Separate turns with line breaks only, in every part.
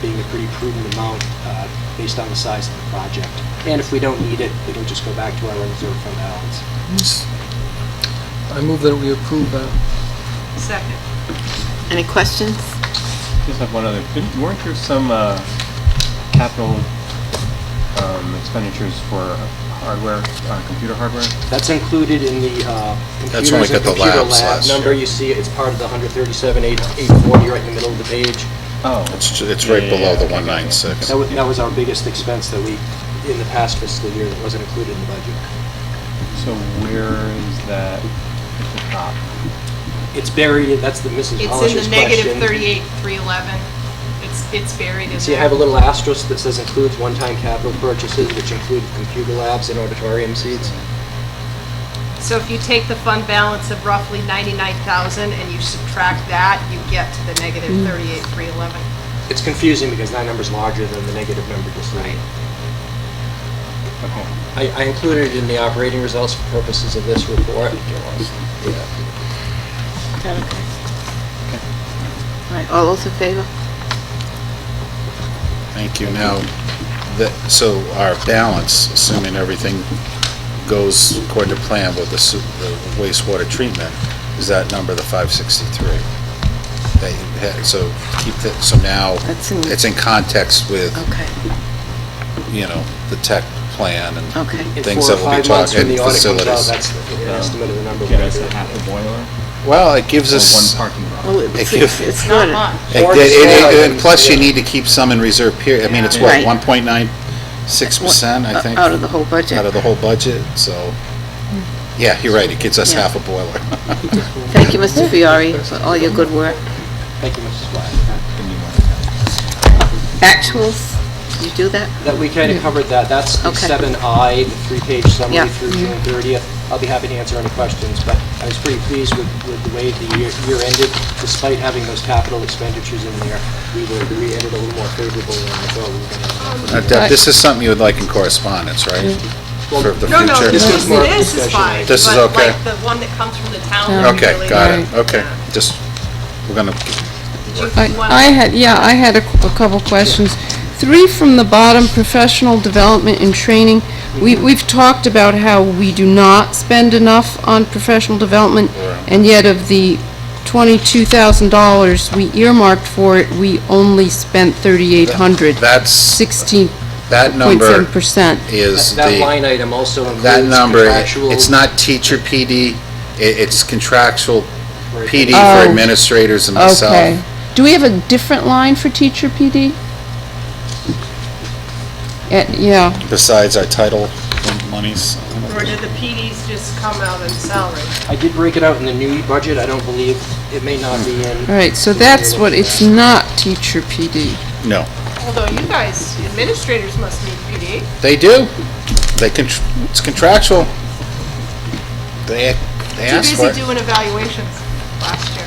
being a pretty prudent amount uh, based on the size of the project. And if we don't need it, it'll just go back to our reserve fund balance.
I move that we approve uh, that.
Second.
Any questions?
Just have one other. Didn't- Weren't there some uh, capital um, expenditures for hardware, uh, computer hardware?
That's included in the uh,
That's when we
computers and
got the
computer
labs
lab
last
number.
year.
You see, it. it's part of the 137,840 right in the middle of the page.
Oh.
It's, ju- it's right
Yeah, yeah,
below the
yeah, okay, okay, okay.
196.
That was, that was our biggest expense that we, in the past fiscal year, that wasn't included in the budget.
So where is that at the top?
It's buried, in- that's the Mrs.
It's in
Hollis's
the
question.
negative 38, 311. It's, it's buried in there.
So you have a little asterisk that says includes one-time capital purchases, which include computer labs and auditorium seats.
So if you take the fund balance of roughly 99,000 and you subtract that, you get to the negative
Hmm.
38, 311.
It's confusing because that number's larger than the negative number just now.
Okay.
I, I included it in the operating results for purposes of this report. Yeah.
Is that okay? All right, all those in favor?
Thank you. Now, that, so our balance, assuming everything goes according to plan with the su- the wastewater treatment, is that number the 563? That you had- So keep that, so now,
That's in-
it's in context with,
Okay,
you know, the tech plan and
okay.
In
Things
four or
that we'll be
five months when
talking,
the audit comes out,
facilities.
that's the- an estimate of the number. we're
Get
gonna
us
do.
a half a boiler
Well, it gives
or one
us,
parking lot?
Well, it's,
Thank you.
it's- it's not, a-
much.
it-
Or
it- it-
smaller
and
than-
plus you need to keep some in reserve period. I mean, it's what,
Right.
1.96%, I think?
out of the whole budget.
out of the whole budget, so,
Hmm.
yeah, you're right, it gets us
Yeah.
half a boiler.
Thank you, Mr. Fiore, for all your good work.
Thank you, Mrs. Black.
Then you want-
Actuals, you do that?
That we kind of covered that. That's the
Okay.
7I, the three-page
Yeah.
summary through June 30th. I'll be happy to answer any questions, but I was pretty pleased with with the way the year year ended. Despite having those capital expenditures in there, we were, we ended a little more favorable than I thought we were going to.
Now, Uh, Deb, This is something you would like in correspondence, right?
Mm-hmm.
For the
No, no,
future?
this
This
is
is more
this is
discussion.
fine.
This is
but,
okay.
like the one that comes from the town. we
Okay,
really- uh,
got it, okay,
Yeah.
just, we're gonna,
Did
I
you want
I had, yeah, I had a a couple questions. Three from the bottom, professional development and training. We- We've talked about how we do not spend enough on professional development, and yet of the $22,000 we earmarked for it, we only spent 3,800,
that's,
16.7%.
that number is
That- That
the,
line item also includes
that number,
contractual...
it's not teacher PD, i- it's contractual
Right.
PD
Oh.
for administrators and
Okay.
myself.
Do we have a different line for teacher PD? Eh, Yeah.
Besides our title monies,
Or did the PDs just come out in salary?
I did break it out in the new budget. I don't believe, it may not be in...
All right, so
in the year
that's
we're
what,
looking
it's
at.
not teacher PD.
no.
Although you guys, administrators must need PD.
They do. They can, it's contractual. They, they
Too
ask for
busy
it.
doing evaluations last year.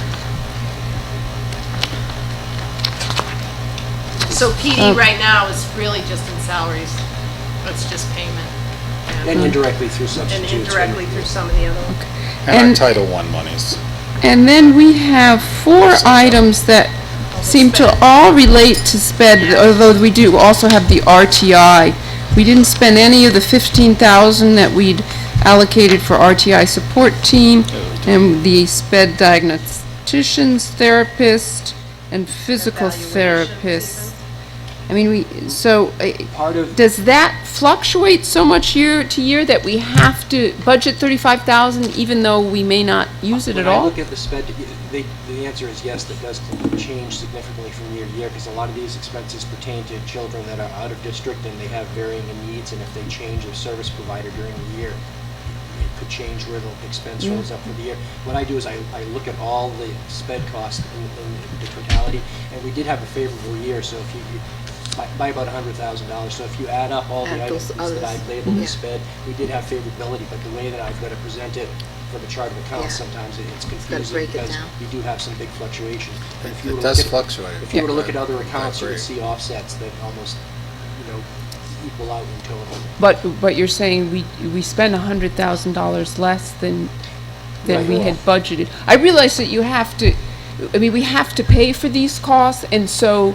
So PD right now is really just in salaries. It's just payment.
And indirectly through
And
substitutes.
indirectly through some of the other ones.
And our
And-
Title I monies.
And then we have four items that seem to all relate to sped, although we do also have the RTI. We didn't spend any of the 15,000 that we'd allocated for RTI support team and the sped diagnosticians, therapist, and physical therapists. I mean, we, so, uh,
Part of,
Does that fluctuate so much year to year that we have to budget thirty-five thousand even though we may not use it
when
at
I
all?
look at the sped, the, the answer is yes, that does change significantly from year to year, because a lot of these expenses pertain to children that are out of district and they have varying needs, and if they change their service provider during the year, it could change where the expense rolls up for the year. What I do is I, I look at all the sped costs in, in the totality, and we did have a favorable year, so if you, you- by, by about a hundred thousand dollars, so if you add up all
Add
the items
those
that
others.
I've labeled
Yeah.
as sped, we did have favorability, but the way that I've got to present it for the chart of accounts,
Yeah.
sometimes it- it's
gotta
confusing
break it
because
down.
you do have some big fluctuations. But if you
It
were to
does
look at-
fluctuate.
If you were to look at other
Yeah.
accounts, you would
Agree.
see offsets that almost, you know, equal out in total.
But, but you're saying we, we spend a hundred thousand dollars less than, than we had budgeted. I realize that you have to, I mean, we have to pay for these costs and so